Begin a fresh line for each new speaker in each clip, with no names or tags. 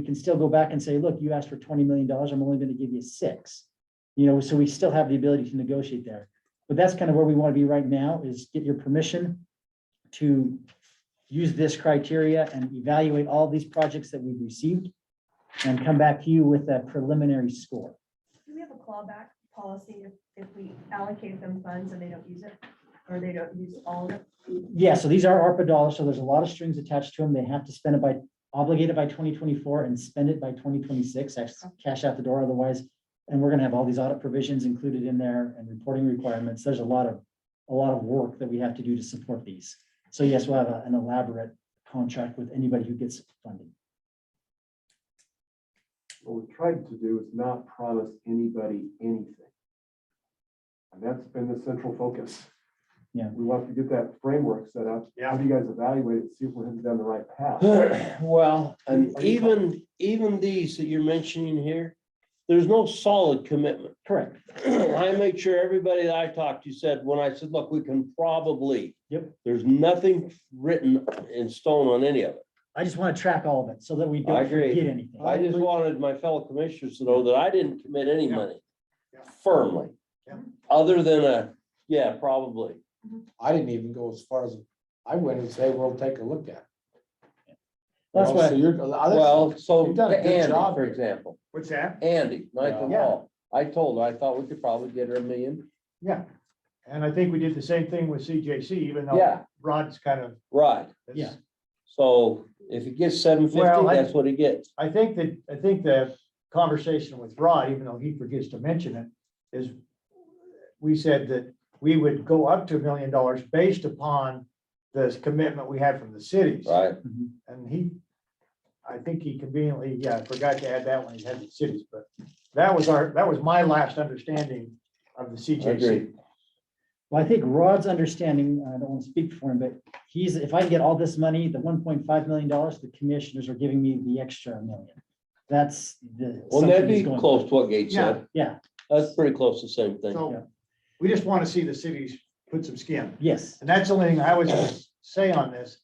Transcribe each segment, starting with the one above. we can still go back and say, look, you asked for twenty million dollars, I'm only gonna give you six. You know, so we still have the ability to negotiate there. But that's kind of where we want to be right now is get your permission to use this criteria and evaluate all these projects that we've received and come back to you with a preliminary score.
Do we have a clawback policy if, if we allocate them funds and they don't use it? Or they don't use all of it?
Yeah, so these are ARPA dollars, so there's a lot of strings attached to them. They have to spend it by, obligated by twenty twenty-four and spend it by twenty twenty-six, cash out the door otherwise. And we're gonna have all these audit provisions included in there and reporting requirements. There's a lot of, a lot of work that we have to do to support these. So yes, we'll have a- an elaborate contract with anybody who gets funding.
What we tried to do is not promise anybody anything. And that's been the central focus.
Yeah.
We want to get that framework set up. Yeah. Have you guys evaluate it, see if we're headed down the right path.
Well, e- and
Are you-
even, even these that you're mentioning here, there's no solid commitment.
Correct.
I made sure everybody that I talked to said, when I said, look, we can probably.
Yep.
There's nothing written in stone on any of it.
I just want to track all of it so that we
I
don't
agree.
forget anything.
I just wanted my fellow commissioners to know that I didn't commit any
Yeah.
money
Yeah.
firmly.
Yeah.
Other than a, yeah, probably.
I didn't even go as far as, I went and say, we'll take a look at. it.
That's
You know,
why.
so you're- uh, other-
Well, so
You've done a Ah, good
Andy,
job
for
here.
example,
What's that?
Andy, Michael
Yeah.
Hall, I told her, I thought we could probably get her a million.
Yeah, and I think we did the same thing with CJC, even though
Yeah,
Rod's kind of.
right.
Yeah.
So if he gets seven fifty,
Well, I-
that's what he gets.
I think that, I think the conversation with Rod, even though he forgets to mention it, is we said that we would go up to a million dollars based upon the commitment we had from the cities.
Right.
Mhm.
And he, I think he conveniently, yeah, I forgot to add that when he had the cities, but that was our, that was my last understanding of the CJC.
Agreed.
Well, I think Rod's understanding, I don't want to speak for him, but he's, if I can get all this money, the one point five million dollars, the commissioners are giving me the extra million. That's the.
Well, that'd
assumption
be
he's going
close
with.
to what Gates said.
Yeah,
That's pretty close to the same
Yeah.
thing.
So we just want to see the cities put some skin.
yes,
And that's the only thing I would say on this,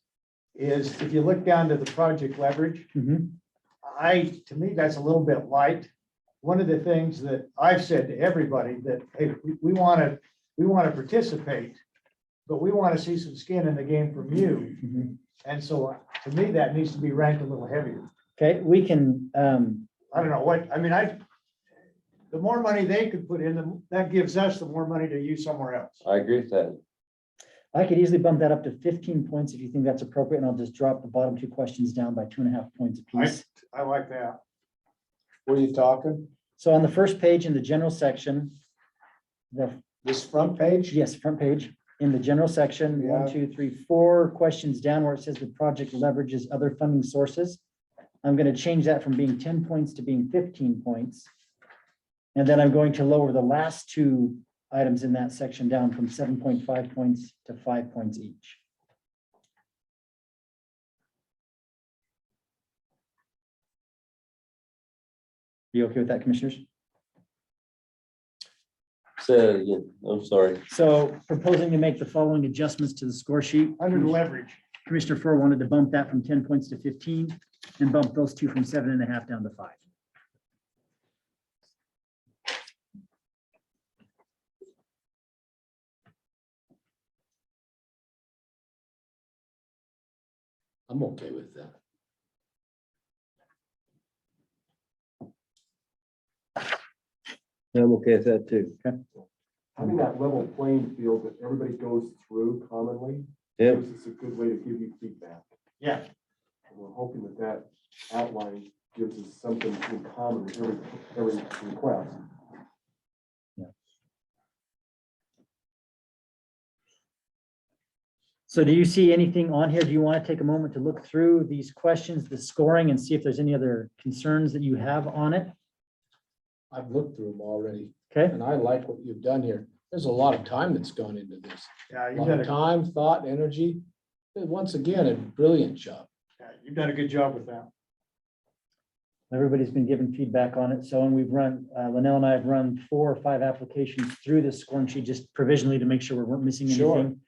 is if you look down to the project leverage,
Mhm.
I, to me, that's a little bit light. One of the things that I've said to everybody that, hey, we- we want to, we want to participate, but we want to see some skin in the game from you.
Mhm.
And so uh, to me, that needs to be ranked a little heavier.
okay, we can, um,
I don't know what, I mean, I, the more money they could put in, the- that gives us the more money to use somewhere else.
I agree with that.
I could easily bump that up to fifteen points if you think that's appropriate, and I'll just drop the bottom two questions down by two and a half points apiece.
I like that.
What are you talking?
So on the first page in the general section, the
This front page?
Yes, front page, in the general section,
Yeah.
one, two, three, four questions down where it says the project leverages other funding sources. I'm gonna change that from being ten points to being fifteen points. And then I'm going to lower the last two items in that section down from seven point five points to five points each. You okay with that, commissioners?
Say that again. I'm sorry.
So proposing to make the following adjustments to the score sheet.
Under the leverage.
Commissioner Fur wanted to bump that from ten points to fifteen and bump those two from seven and a half down to five.
I'm okay with that.
I'm okay with that too.
Having that level playing field that everybody goes through commonly.
Yeah.
Gives us a good way to give you feedback.
Yeah.
And we're hoping that that outline gives us something in common with every, every request.
So do you see anything on here? Do you want to take a moment to look through these questions, the scoring, and see if there's any other concerns that you have on it?
I've looked through them already,
Okay,
and I like what you've done here. There's a lot of time that's gone into this.
Yeah,
A
you've
lot
done
of
a
time, thought, energy. And Once again, a brilliant job.
Yeah, you've done a good job with that.
everybody's been given feedback on it. So, and we've run, uh, Linnell and I have run four or five applications through this scoring sheet just provisionally to make sure we weren't missing
Sure.
anything.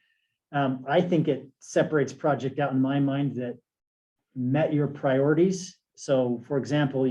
Um, I think it separates project out in my mind that met your priorities. So for example,